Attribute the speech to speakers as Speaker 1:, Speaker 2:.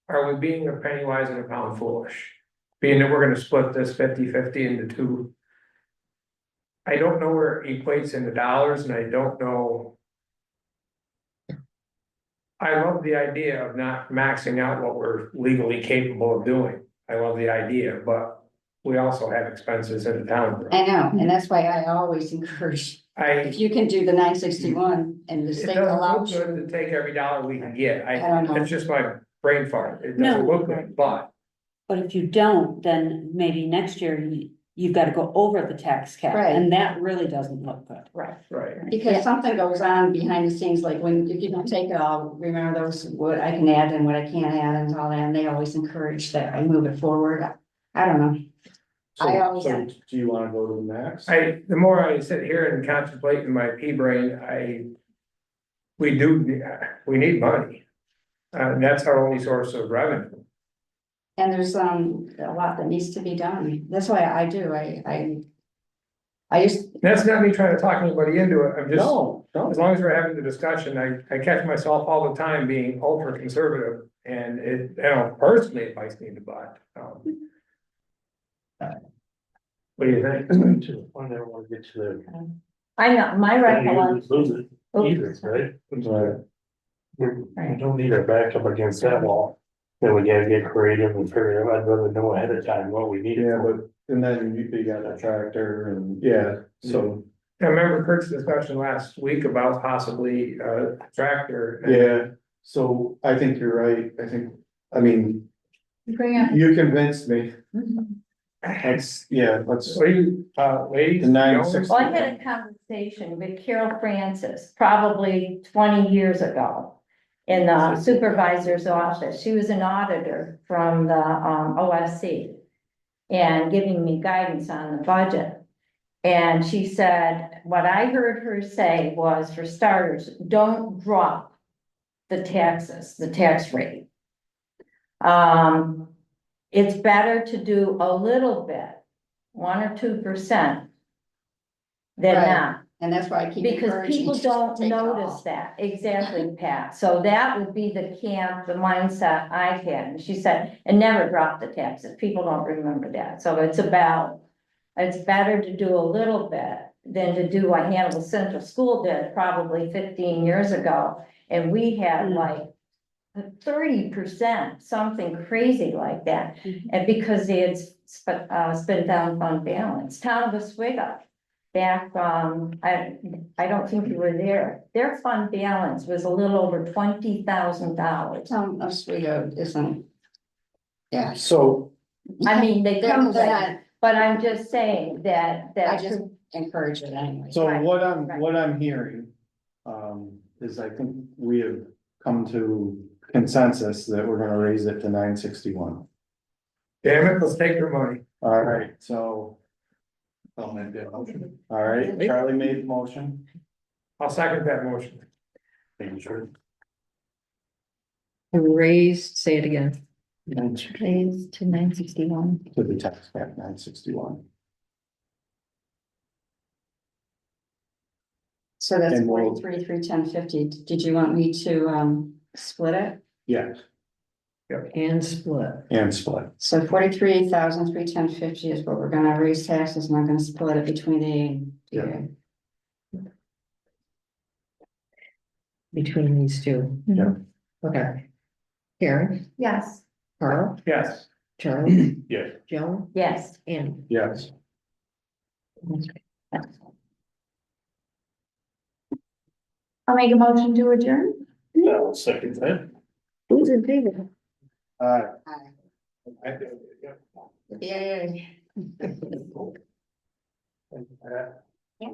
Speaker 1: are we being a penny wise and a pound foolish? Being that we're gonna split this 50-50 into two. I don't know where it equates into dollars and I don't know. I love the idea of not maxing out what we're legally capable of doing. I love the idea, but we also have expenses in the town.
Speaker 2: I know,
Speaker 1: Mm-hmm.
Speaker 2: and that's why I always encourage,
Speaker 1: I,
Speaker 2: if you can do the nine sixty-one and the
Speaker 1: it
Speaker 2: state
Speaker 1: doesn't look
Speaker 2: allows
Speaker 1: good to
Speaker 2: you.
Speaker 1: take every dollar we can get.
Speaker 2: I
Speaker 1: I,
Speaker 2: don't know,
Speaker 1: it's just my brain fart. It
Speaker 3: No.
Speaker 1: doesn't look good, but.
Speaker 3: But if you don't, then maybe next year you, you've gotta go over the tax cap,
Speaker 2: Right.
Speaker 3: and that really doesn't look good.
Speaker 2: right,
Speaker 1: Right.
Speaker 2: because something goes on behind the scenes, like when, if you don't take it all, remember those, what I can add and what I can't add and all that, and they always encourage that I move it forward. I- I don't know, I
Speaker 4: So-
Speaker 2: always-
Speaker 4: so Do you wanna go to the max?
Speaker 1: I, the more I sit here and contemplate in my pea brain, I. We do, we need money. Uh, and that's our only source of revenue.
Speaker 2: and there's, um, a lot that needs to be done, that's why I do, I, I. I just,
Speaker 1: That's not me trying to talk anybody into it, I'm just,
Speaker 4: No, no,
Speaker 1: as long as we're having the discussion, I, I catch myself all the time being ultra conservative. And it, you know, personally, it bites me in the butt, um. What do you think?
Speaker 4: to the point I don't wanna get to the.
Speaker 5: I know, my recollection,
Speaker 4: Don't Lose it
Speaker 5: Oh.
Speaker 4: either, right? But We we don't need our back up against that wall. Then we gotta get creative and figure out, I'd rather know ahead of time what we need.
Speaker 6: Yeah, but, and then you, you got a tractor and, yeah, so,
Speaker 1: I remember Kurt's discussion last week about possibly a tractor.
Speaker 6: yeah, so I think you're right, I think, I mean,
Speaker 2: bring up,
Speaker 6: you convinced me, let's, yeah, let's,
Speaker 1: So you, uh, ladies.
Speaker 6: The nine
Speaker 1: gentlemen,
Speaker 6: sixty.
Speaker 5: well, I had a conversation with Carol Francis probably twenty years ago. In the supervisor's office, she was an auditor from the um OSC. And giving me guidance on the budget. And she said, what I heard her say was, for starters, don't drop. The taxes, the tax rate. Um, it's better to do a little bit, one or two percent. Than
Speaker 2: Right.
Speaker 5: not,
Speaker 2: and that's why I keep
Speaker 5: because
Speaker 2: encouraging.
Speaker 5: people
Speaker 2: just to
Speaker 5: don't
Speaker 2: take it all.
Speaker 5: notice that, exactly, Pat, so that would be the camp, the mindset I had, and she said, and never drop the taxes, people don't remember that, so it's about. It's better to do a little bit than to do what Hannibal Central School did probably fifteen years ago, and we had
Speaker 2: Hmm.
Speaker 3: Mm.
Speaker 5: like. Thirty percent, something crazy like that, and because they had spent, uh, spent down fund balance, town of Oswego. Back, um, I, I don't think you were there, their fund balance was a little over twenty thousand dollars.
Speaker 2: Town of Oswego isn't. Yeah.
Speaker 6: so,
Speaker 5: I mean, they
Speaker 2: They're
Speaker 5: come,
Speaker 2: not
Speaker 5: but I'm just saying that,
Speaker 2: I
Speaker 5: that,
Speaker 2: just- encourage it anyway.
Speaker 6: so
Speaker 5: Right,
Speaker 6: what I'm,
Speaker 5: right.
Speaker 6: what I'm hearing. Um, is I think we have come to consensus that we're gonna raise it to nine sixty-one.
Speaker 1: Damn it, let's take their money.
Speaker 6: All right, so. I'll make that motion. All right, Charlie made the motion.
Speaker 1: I'll second that motion.
Speaker 4: Thank you, sure.
Speaker 7: Raised, say it again.
Speaker 6: To
Speaker 5: Raised to nine sixty-one.
Speaker 6: the tax cap nine sixty-one.
Speaker 2: So that's
Speaker 6: And we'll-
Speaker 2: forty-three, three, ten, fifty. Did you want me to, um, split it?
Speaker 6: Yes,
Speaker 7: And split.
Speaker 6: and split.
Speaker 2: So forty-three thousand, three, ten, fifty is what we're gonna raise taxes, and I'm gonna split it between the.
Speaker 6: Yeah.
Speaker 7: Between these two.
Speaker 6: Yeah.
Speaker 7: Okay. Karen,
Speaker 5: Yes,
Speaker 7: Carl,
Speaker 1: Yes,
Speaker 7: Charlie,
Speaker 6: Yes.
Speaker 7: Joan,
Speaker 5: yes,
Speaker 7: and.
Speaker 6: Yes.
Speaker 5: I'll make a motion to adjourn.
Speaker 4: No, second that.
Speaker 7: Who's in favor?
Speaker 6: Uh,
Speaker 2: Aye.
Speaker 4: I think, yeah.
Speaker 2: Yeah, yeah, yeah.
Speaker 4: And, uh,